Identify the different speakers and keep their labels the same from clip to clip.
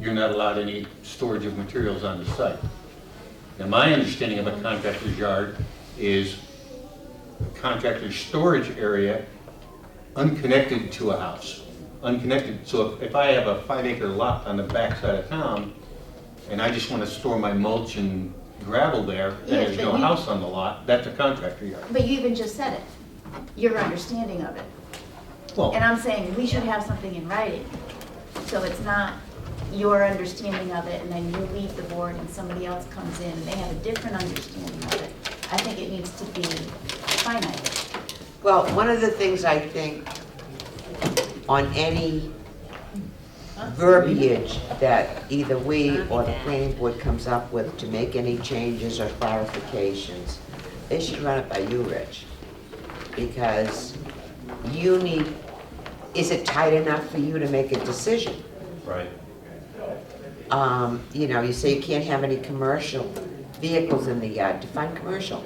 Speaker 1: you're not allowed any storage of materials on the site. Now, my understanding of a contractor's yard is a contractor's storage area unconnected to a house, unconnected. So if- if I have a five acre lot on the backside of town, and I just want to store my mulch and gravel there, and
Speaker 2: Yes,
Speaker 1: there's
Speaker 2: but
Speaker 1: no
Speaker 2: you-
Speaker 1: house on the lot, that's a contractor yard.
Speaker 2: But you even just said it, your understanding of it.
Speaker 1: Well,
Speaker 2: And I'm saying we should have something in writing. So it's not your understanding of it and then you leave the board and somebody else comes in and they have a different understanding of it. I think it needs to be finite.
Speaker 3: Well, one of the things I think on any verbiage that either we or the planning board comes up with to make any changes or clarifications, they should run it by you, Rich. Because you need, is it tight enough for you to make a decision?
Speaker 1: right.
Speaker 3: Um, you know, you say you can't have any commercial vehicles in the yard, define commercial.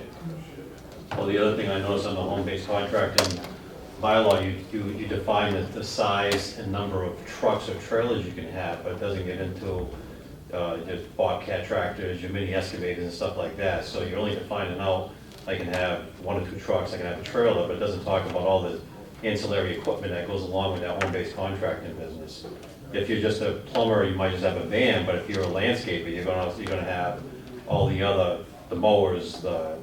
Speaker 4: Well, the other thing I noticed on the home-based contract and bylaw, you, you you define the, the size and number of trucks or trailers you can have, but it doesn't get into, uh, your Bobcat tractors, your mini excavators and stuff like that, so you're only defining out, I can have one or two trucks, I can have a trailer, but it doesn't talk about all the ancillary equipment that goes along with that home-based contracting business. If you're just a plumber, you might just have a van, but if you're a landscaper, you're gonna, you're gonna have all the other, the mowers, the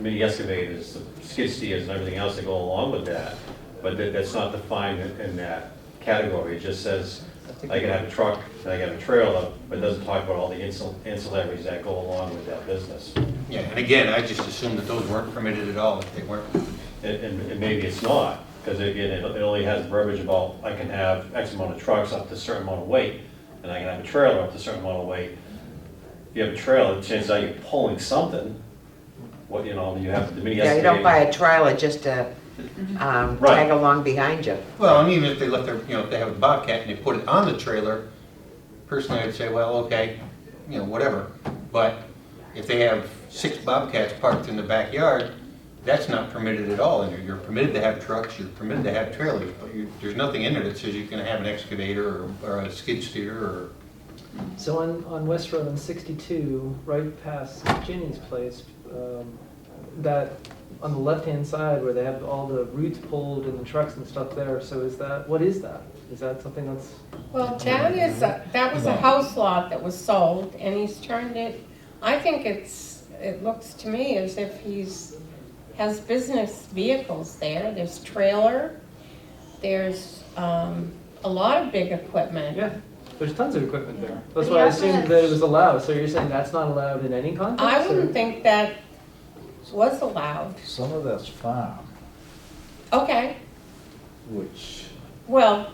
Speaker 4: mini excavators, the skid steers and everything else that go along with that. But that, that's not defined in, in that category, it just says, I can have a truck, and I can have a trailer, but it doesn't talk about all the ancil- ancillaries that go along with that business.
Speaker 1: Yeah, and again, I just assumed that those weren't permitted at all, if they weren't.
Speaker 4: And, and and maybe it's not, because again, it it only has verbiage about, I can have X amount of trucks up to a certain amount of weight, and I can have a trailer up to a certain amount of weight. If you have a trailer, chances are you're pulling something, what, you know, you have the mini
Speaker 3: Yeah,
Speaker 4: excavator.
Speaker 3: you don't buy a trailer just to um,
Speaker 4: Right.
Speaker 3: tag along behind you.
Speaker 1: Well, and even if they left their, you know, if they have a Bobcat and they put it on the trailer, personally, I'd say, well, okay, you know, whatever. But if they have six Bobcats parked in the backyard, that's not permitted at all. And you're- you're permitted to have trucks, you're permitted to have trailers, but you, there's nothing in there that says you can have an excavator or, or a skid steer or,
Speaker 5: So on, on West Road on 62, right past Jenny's place, um, that, on the left-hand side where they have all the roots pulled and the trucks and stuff there, so is that, what is that? Is that something that's,
Speaker 6: Well, that is, a- that was a house lot that was sold, and he's turned it, I think it's, it looks to me as if he's, has business vehicles there, there's trailer, there's, um, a lot of big equipment.
Speaker 5: yeah, there's tons of equipment there.
Speaker 2: But
Speaker 5: That's
Speaker 2: he
Speaker 5: why I
Speaker 2: also
Speaker 5: assumed
Speaker 2: has-
Speaker 5: that it was allowed, so you're saying that's not allowed in any context?
Speaker 6: I
Speaker 5: or-
Speaker 6: wouldn't think that was allowed.
Speaker 7: Some of that's farm,
Speaker 6: Okay,
Speaker 7: which
Speaker 6: well,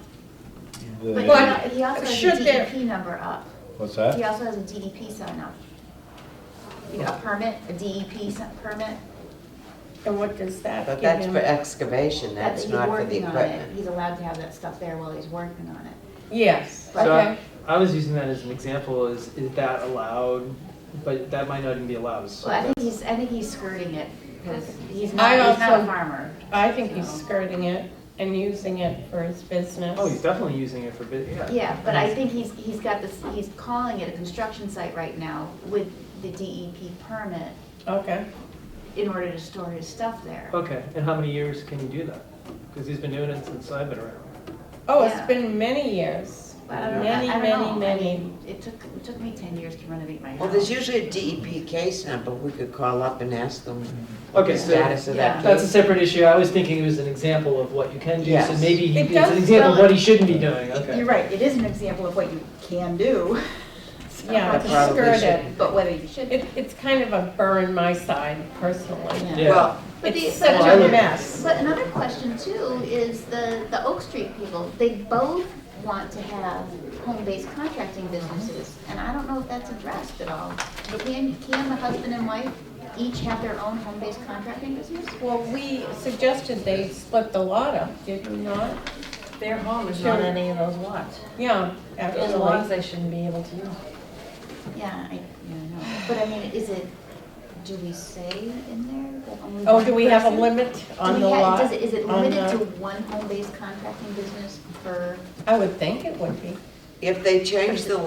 Speaker 2: But
Speaker 7: the,
Speaker 2: he
Speaker 6: But-
Speaker 2: al- he also has
Speaker 6: Should
Speaker 2: a
Speaker 6: there-
Speaker 2: DEP number up.
Speaker 7: what's
Speaker 2: He
Speaker 7: that?
Speaker 2: also has a DEP sign up. You know, a permit, a DEP si- permit.
Speaker 6: and what does that give
Speaker 3: But that's
Speaker 6: him?
Speaker 3: for excavation,
Speaker 2: that
Speaker 3: that's
Speaker 2: he's
Speaker 3: not for the
Speaker 2: working on it.
Speaker 3: equipment.
Speaker 2: He's allowed to have that stuff there while he's working on it.
Speaker 6: Yes,
Speaker 5: So I-
Speaker 6: okay,
Speaker 5: I was using that as an example, is, is that allowed? But that might not even be allowed, so
Speaker 2: Well, I think
Speaker 5: that's-
Speaker 2: he's, I think he's skirting it because he's not,
Speaker 6: I
Speaker 2: he's not a
Speaker 6: also-
Speaker 2: farmer.
Speaker 6: I think he's skirting it and using it for his business.
Speaker 5: Oh, he's definitely using it for, bit- yeah.
Speaker 2: Yeah, but I think he's, he's got this, he's calling it a construction site right now with the DEP permit
Speaker 6: Okay.
Speaker 2: in order to store his stuff there.
Speaker 5: Okay, and how many years can you do that? Because he's been doing it since I've been around.
Speaker 6: Oh, it's
Speaker 2: Yeah.
Speaker 6: been many years.
Speaker 2: But I don't know,
Speaker 6: Many,
Speaker 2: I- I don't
Speaker 6: many,
Speaker 2: know. I
Speaker 6: many.
Speaker 2: mean, It took, it took me ten years to renovate my house.
Speaker 3: Well, there's usually a DEP case number, we could call up and ask them what
Speaker 5: Okay,
Speaker 3: the
Speaker 5: so
Speaker 3: status of that
Speaker 5: That's a
Speaker 3: case.
Speaker 5: separate issue. I was thinking it was an example of what you can do, so
Speaker 3: Yes.
Speaker 5: maybe he-
Speaker 6: It
Speaker 5: it's
Speaker 6: does
Speaker 5: an example of
Speaker 2: spell
Speaker 5: what he shouldn't be doing,
Speaker 2: You're
Speaker 5: okay.
Speaker 2: right, it is an example of what you can do. So-
Speaker 6: Yeah,
Speaker 3: That probably
Speaker 6: skirt it.
Speaker 3: shouldn't.
Speaker 2: But whether you should.
Speaker 6: It, it's kind of a burn my side personally.
Speaker 5: Yeah.
Speaker 3: Well,
Speaker 2: But the-
Speaker 6: It's
Speaker 2: but
Speaker 6: such
Speaker 5: Well, I-
Speaker 6: a mess.
Speaker 2: But another question too is the, the Oak Street people, they both want to have home-based contracting businesses. And I don't know if that's addressed at all. But Can, can the husband and wife each have their own home-based contracting business?
Speaker 6: Well, we suggested they split the lot up, did we not?
Speaker 8: Their home is not any of those lots.
Speaker 6: Yeah,
Speaker 8: Those lots
Speaker 6: actually.
Speaker 8: they shouldn't be able to do.
Speaker 2: Yeah, I, yeah, I know. But I mean, is it, do we say in there that only
Speaker 6: Oh,
Speaker 2: one
Speaker 6: do we have a
Speaker 2: person-
Speaker 6: limit
Speaker 2: Do
Speaker 6: on
Speaker 2: we
Speaker 6: the
Speaker 2: ha-
Speaker 6: lot?
Speaker 2: Does it, is it
Speaker 6: On
Speaker 2: limited
Speaker 6: the-
Speaker 2: to one home-based contracting business per?
Speaker 6: I would think it would be.
Speaker 3: if they change the